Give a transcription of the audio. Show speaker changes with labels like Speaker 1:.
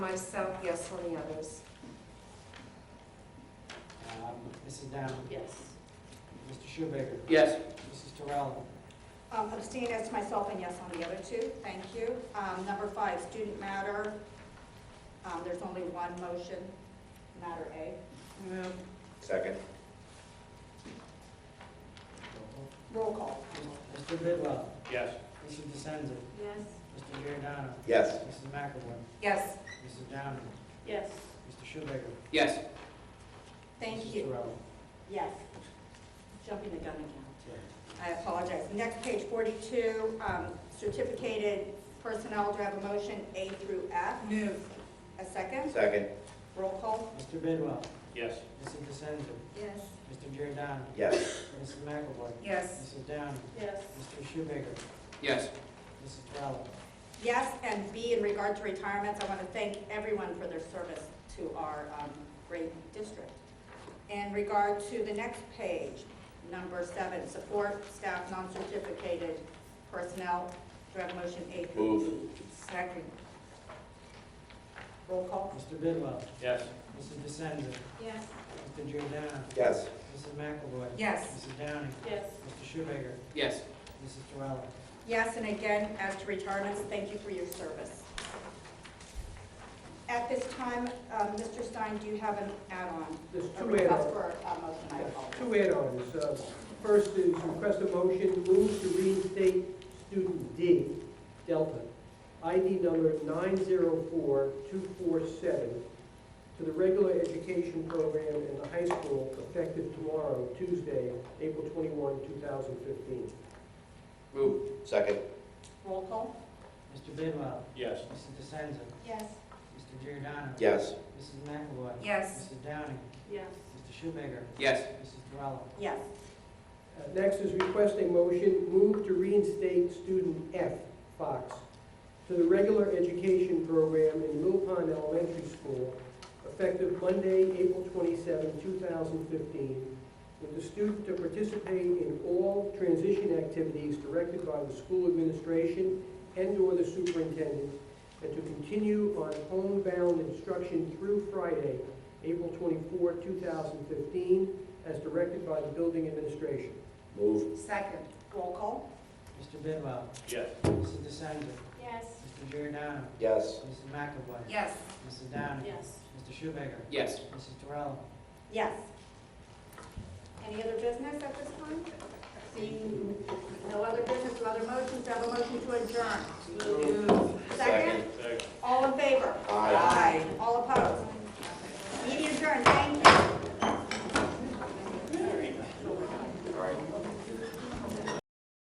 Speaker 1: Myself, yes on the others.
Speaker 2: Um, Mrs. Down,
Speaker 3: Yes.
Speaker 2: Mr. Schubaker,
Speaker 4: Yes.
Speaker 2: Mrs. Terrell,
Speaker 5: Um, Abstain as to myself and yes on the other two, thank you. Um, Number five, student matter, Um, there's only one motion, matter A.
Speaker 3: Move.
Speaker 6: Second.
Speaker 5: Roll call.
Speaker 2: Mr. Bidwell,
Speaker 4: Yes.
Speaker 2: Mrs. DeSenza,
Speaker 3: Yes.
Speaker 2: Mr. Giordano,
Speaker 6: Yes.
Speaker 2: Mrs. McAvoy,
Speaker 1: Yes,
Speaker 2: Mrs. Down,
Speaker 3: Yes.
Speaker 2: Mr. Schubaker.
Speaker 4: Yes.
Speaker 5: Thank
Speaker 2: Mrs.
Speaker 5: you.
Speaker 2: Terrell.
Speaker 5: Yes,
Speaker 3: Jumping the gun again.
Speaker 5: I apologize. Next, page 42, um, certificated personnel, do I have a motion A through F?
Speaker 1: move,
Speaker 5: A second?
Speaker 6: Second.
Speaker 5: Roll call.
Speaker 2: Mr. Bidwell,
Speaker 4: Yes.
Speaker 2: Mrs. DeSenza,
Speaker 5: Yes.
Speaker 2: Mr. Giordano,
Speaker 6: Yes.
Speaker 2: Mrs. McAvoy,
Speaker 1: yes,
Speaker 2: Mrs. Down,
Speaker 3: Yes.
Speaker 2: Mr. Schubaker,
Speaker 4: Yes.
Speaker 2: Mrs. Terrell.
Speaker 5: Yes, and B, in regard to retirements, I want to thank everyone for their service to our um, great district. In regard to the next page, number seven, support staff non-certificated personnel, do I have a motion A through?
Speaker 6: Move.
Speaker 1: second,
Speaker 5: Roll call.
Speaker 2: Mr. Bidwell,
Speaker 4: Yes.
Speaker 2: Mrs. DeSenza,
Speaker 3: Yes.
Speaker 2: Mr. Giordano,
Speaker 6: Yes.
Speaker 2: Mrs. McAvoy,
Speaker 1: yes,
Speaker 2: Mrs. Downing,
Speaker 3: Yes.
Speaker 2: Mr. Schubaker,
Speaker 4: Yes.
Speaker 2: Mrs. Terrell.
Speaker 5: Yes, and again, as to retirements, thank you for your service. At this time, um, Mr. Stein, do you have an add-on?
Speaker 7: There's
Speaker 5: A
Speaker 7: two
Speaker 5: request
Speaker 7: add-ons,
Speaker 5: for a motion, I apologize.
Speaker 7: two add-ons. Uh, First is request a motion, move to reinstate student D, Delta, ID number 904247, to the regular education program in the high school effective tomorrow, Tuesday, April 21, 2015.
Speaker 4: Move.
Speaker 6: Second.
Speaker 5: Roll call.
Speaker 2: Mr. Bidwell,
Speaker 4: Yes.
Speaker 2: Mrs. DeSenza,
Speaker 5: Yes.
Speaker 2: Mr. Giordano.
Speaker 6: Yes.
Speaker 2: Mrs. McAvoy.
Speaker 1: yes,
Speaker 2: Mrs. Downing.
Speaker 3: Yes.
Speaker 2: Mr. Schubaker.
Speaker 4: Yes.
Speaker 2: Mrs. Terrell.
Speaker 5: Yes.
Speaker 7: Uh, Next is request a motion, move to reinstate student F, Fox, to the regular education program in Mill Pond Elementary School effective Monday, April 27, 2015, with the student to participate in all transition activities directed by the school administration and/or the superintendent, and to continue on homebound instruction through Friday, April 24, 2015, as directed by the building administration.
Speaker 6: Move.
Speaker 1: second,
Speaker 5: Roll call.
Speaker 2: Mr. Bidwell.
Speaker 4: Yes.
Speaker 2: Mrs. DeSenza.
Speaker 3: Yes.
Speaker 2: Mr. Giordano.
Speaker 6: Yes.
Speaker 2: Mrs. McAvoy.
Speaker 1: yes,
Speaker 2: Mrs. Downing.
Speaker 3: Yes.
Speaker 2: Mr. Schubaker.
Speaker 4: Yes.
Speaker 2: Mrs. Terrell.
Speaker 5: Yes. Any other business at this time? Seeing no other business, no other motions, do I have a motion to adjourn?
Speaker 1: move.
Speaker 5: Second, all in favor?
Speaker 6: Aye.